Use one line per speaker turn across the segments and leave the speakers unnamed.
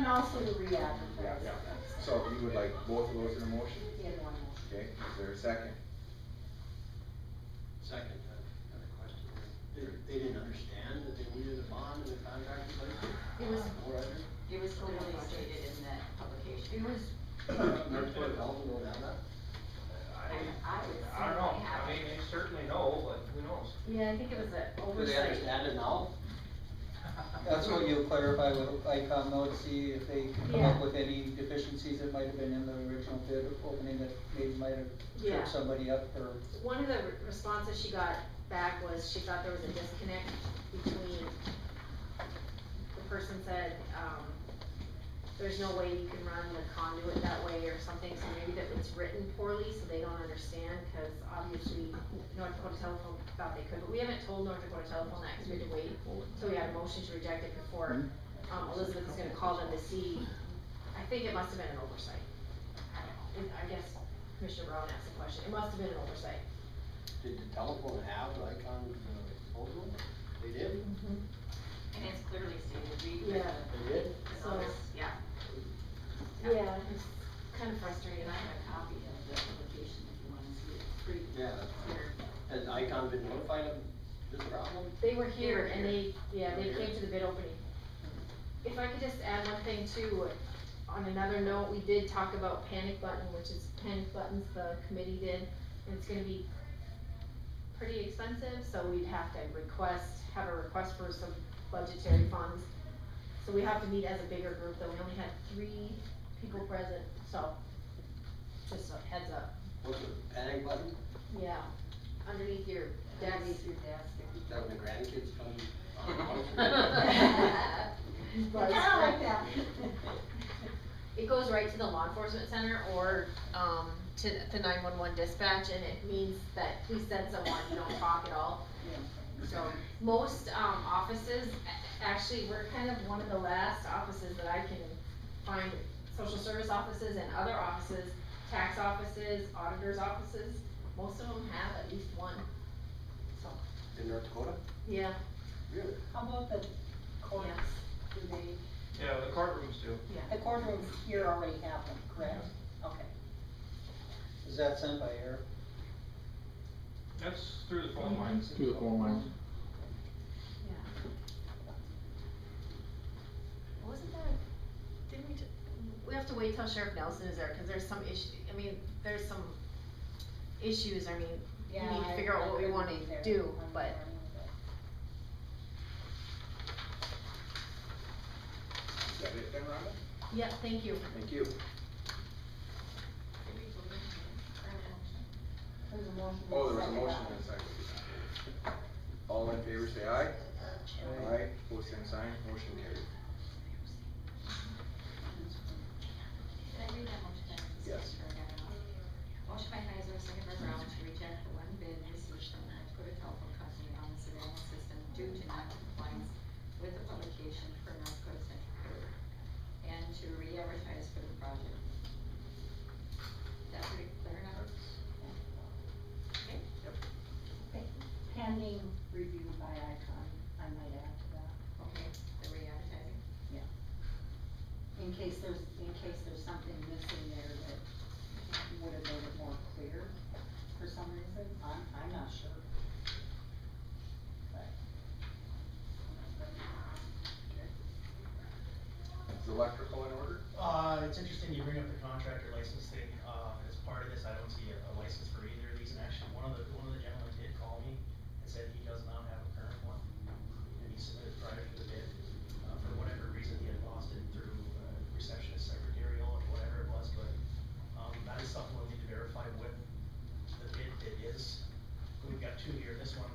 also to
Yeah,
re-advertise.
yeah. So you would like both of those in a motion?
In one motion.
Okay, is there a second?
Second, uh, another question. They, they didn't understand that they needed a bond in the contract in place?
It was-
Or other?
It was clearly stated in the publication.
It was,
Uh, Northwood Development will have that?
I,
I would
I don't know,
certainly have
I mean,
it.
they certainly know, but who knows?
yeah, I think it was
Do
an
they
oversight.
understand it now?
That's what you'll clarify with ICOM though, to see if they can come
Yeah.
up with any deficiencies that might have been in the original bid opening that maybe might have
Yeah.
tripped somebody up or.
One of the re- responses she got back was she thought there was a disconnect between, the person said, um, there's no way you can run the conduit that way or something, so maybe that it's written poorly, so they don't understand, cause obviously North Dakota Telephone thought they could, but we haven't told North Dakota Telephone that, cause we had to wait till we had a motion to reject it before, um, Elizabeth was gonna call them to see, I think it must have been an oversight. I don't know. I guess Commissioner Brown asked the question, it must have been an oversight.
Did the telephone have the Icon uh, proposal? They did?
And it's clearly stated, we.
Yeah.
They did?
It's all this- yeah.
Yeah, it's-
Kind of frustrated, I have a copy of the application if you want to see it, it's pretty
Yeah.
clear.
Has Icon been notified of this problem?
They were here
They were
and they, yeah, they
They were
came
here.
to the bid opening. If I could just add one thing too, on another note, we did talk about panic button, which is panic buttons the committee did, and it's gonna be pretty expensive, so we'd have to request, have a request for some budgetary funds. So we have to meet as a bigger group, though we only had three people present, so just a heads up,
What's the panic button?
yeah, underneath your desk.
underneath your desk.
Is that when the grandkids come?
I
Right.
like that.
It goes right to the law enforcement center or, um, to the nine-one-one dispatch, and it means that please send someone, you don't talk at all. So, most, um, offices, a- actually, we're kind of one of the last offices that I can find, social service offices and other offices, tax offices, auditors' offices, most of them have at least one, so,
In North Dakota?
yeah,
Really?
How about the courts?
yeah.
Do they,
Yeah, the courtrooms do.
the courtrooms here already have them, correct? Okay.
Is that sent by air?
That's through the phone lines.
Through the phone lines.
Wasn't that, didn't we, ju- we have to wait till Sheriff Nelson is there, cause there's some issue, I mean, there's some issues, I mean, we
Yeah,
need to
I-
figure
I
out what we
couldn't
wanna
be there.
do,
I'm
but
sorry,
Is that it then, Rhonda?
Yeah, thank you.
Thank you.
There's a motion.
Oh, there was a
Second
motion
that.
in a second. All in favor, say aye. Aye, pose same sign, motion carried.
Did I read that motion down?
Yes.
Motion by Heiser, second by Brown, to reject the one bid received from the Dakota Telephone Company on the surveillance system due to non-compliance with the publication for North Dakota Central Code, and to re-advertise for the project. Is that pretty clear enough?
Pending review by ICON, I might add to that,
Okay, the re-advertising?
in case there's, in case there's something missing there that would have made it more clear for some reason, I'm, I'm not sure.
Is electrical in order?
Uh, it's interesting you bring up the contractor license thing, uh, as part of this, I don't see a, a license for either of these, and actually, one of the, one of the gentlemen did call me and said he does not have a current one, and he submitted prior to the bid, uh, for whatever reason, he had lost it through uh, receptionist secretarial or whatever it was, but, um, that is something we'll need to verify with the bid bid is. We've got two here, this one,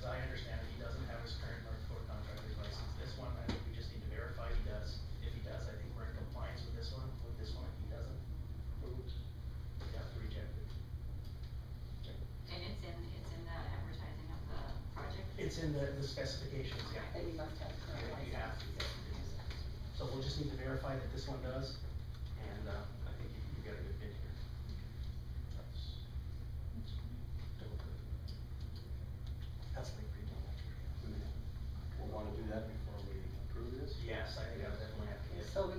as I understand it, he doesn't have his current North Dakota contractor's license, this one, I think we just need to verify he does. If he does, I think we're in compliance with this one, with this one, if he doesn't, we have to reject it.
And it's in, it's in the advertising of the project?
It's in the, the specifications, yeah.
That you must have current
Yeah, you
license.
have to. So we'll just need to verify that this one does, and, uh, I think you, you got a good bid here. That's like pretty much.
We'll wanna do that before we approve this?
Yes, I think I definitely have to get.
So we